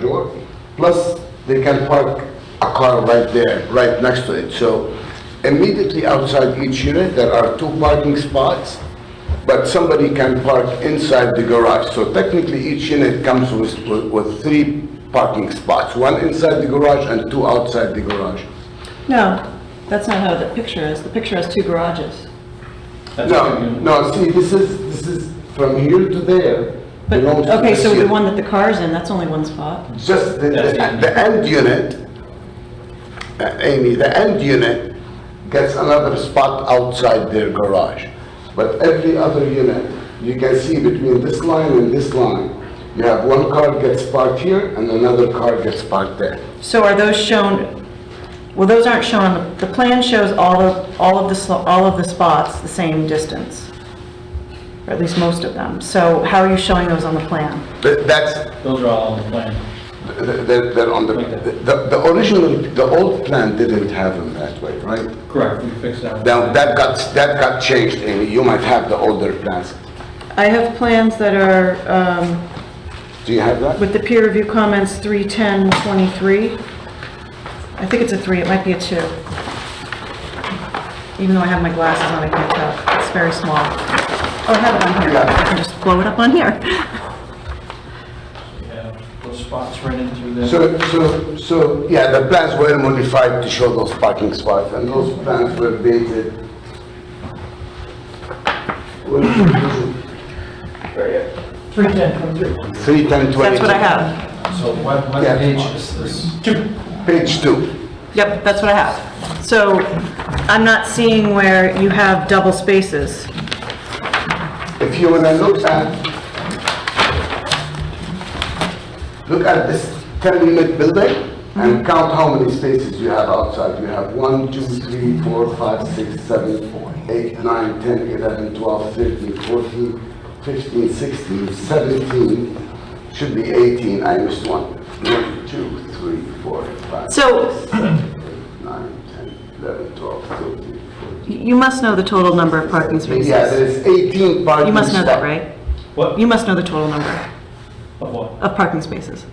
door. Plus, they can park a car right there, right next to it. So immediately outside each unit, there are two parking spots, but somebody can park inside the garage. So technically, each unit comes with, with- with three parking spots, one inside the garage and two outside the garage. No, that's not how the picture is. The picture has two garages. That's No, what you- no, see, this is, this is from here to there. But, belongs to okay, this so the unit. one that the car's in, that's only one spot. Just the, the That's it. the end unit, uh, Amy, the end unit gets another spot outside their garage. But every other unit, you can see between this line and this line, you have one car gets parked here and another car gets parked there. So are those shown, well, those aren't shown, the plan shows all of, all of the, sl- all of the spots the same distance. Or at least most of them. So how are you showing those on the plan? Th- That's, Those are all on the plan. they're, they're on the, the, the original, the old plan didn't have them that way, right? Correct, we fixed that. Now, that got, that got changed, Amy, you might have the older plans. I have plans that are, um, Do you have that? with the peer review comments, 31023. I think it's a three, it might be a two. Even though I have my glasses on, I can't tell. It's very small. Oh, I have it on here. I can just blow it up on here. Yeah, Those spots right in through there. So, so, so, yeah, the plans were modified to show those parking spots, and those plans were dated. Three ten, twenty-three. Three ten twenty. That's what I have. So what, what Yeah. page is this? Page two. Yep, that's what I have. So I'm not seeing where you have double spaces. If you wanna look at, look at this ten unit building and count how many spaces you have outside. You have one, two, three, four, five, six, seven, eight, nine, ten, eleven, twelve, thirteen, fourteen, fifteen, sixteen, seventeen, should be eighteen, I missed one. One, two, three, four, five, So- six, seven, eight, nine, ten, eleven, twelve, thirteen, fourteen. You must know the total number of parking spaces. Yeah, there's eighteen parking You must know that, spots. right? What? You must know the total number Of what? of parking spaces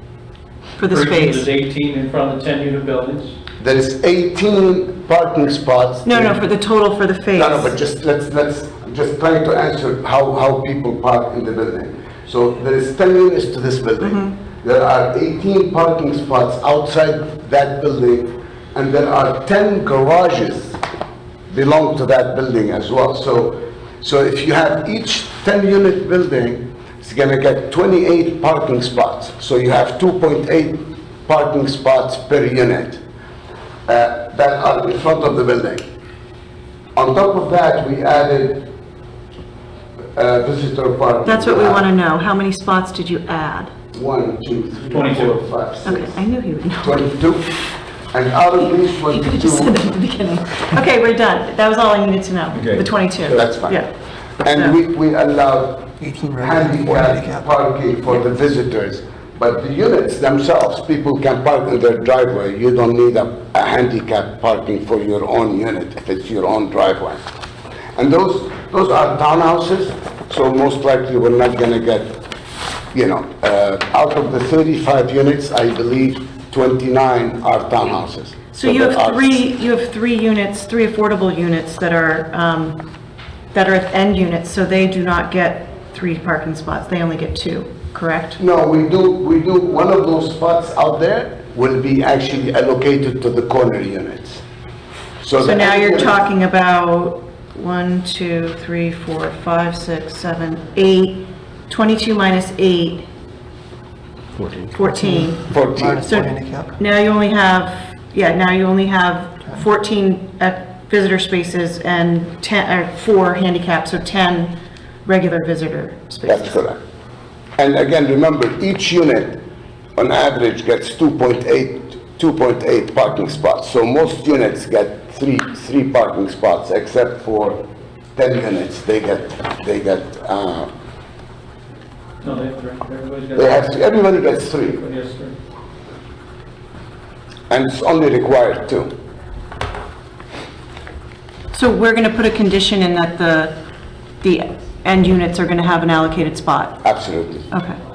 for this There's phase. 18 in front of the 10-unit buildings. There is 18 parking spots. No, no, for the total for the phase. No, no, but just, let's, let's, just trying to answer how, how people park in the building. So there is 10 units to this building. There are 18 parking spots outside that building, and there are 10 garages belong to that building as well. So, so if you have each 10-unit building, it's gonna get 28 parking spots. So you have 2.8 parking spots per unit uh, that are in front of the building. On top of that, we added uh, visitor parking. That's what we want to know. How many spots did you add? One, two, three, 22. four, five, Okay, six, I knew he would know. 22. And out of these You could have just said that 22, at the beginning. Okay, we're done. That was all I needed to know, the 22. that's fine. Yeah. And No. we, we allowed handicap handicap. parking for the visitors. But the units themselves, people can park in their driveway. You don't need a a handicap parking for your own unit if it's your own driveway. And those, those are townhouses, so most likely we're not gonna get, you know, uh, out of the 35 units, I believe 29 are townhouses. So you there have are- three, you have three units, three affordable units that are, um, that are end units, so they do not get three parking spots. They only get two, correct? No, we do, we do, one of those spots out there will be actually allocated to the corner units. So the now you're units- talking about one, two, three, four, five, six, seven, eight, 22 minus 8. 14. 14. 14. So now you only have, yeah, now you only have 14 at visitor spaces and 10, or four handicap, so 10 regular visitor That's spaces. correct. And again, remember, each unit on average gets 2.8, 2.8 parking spots. So most units get three, three parking spots, except for 10 units, they get, they get, uh, No, they, everybody's got. they have, everybody gets three, Yes, sir. and it's only required two. So we're going to put a condition in that the, the end units are going to have an allocated spot. Absolutely. Okay.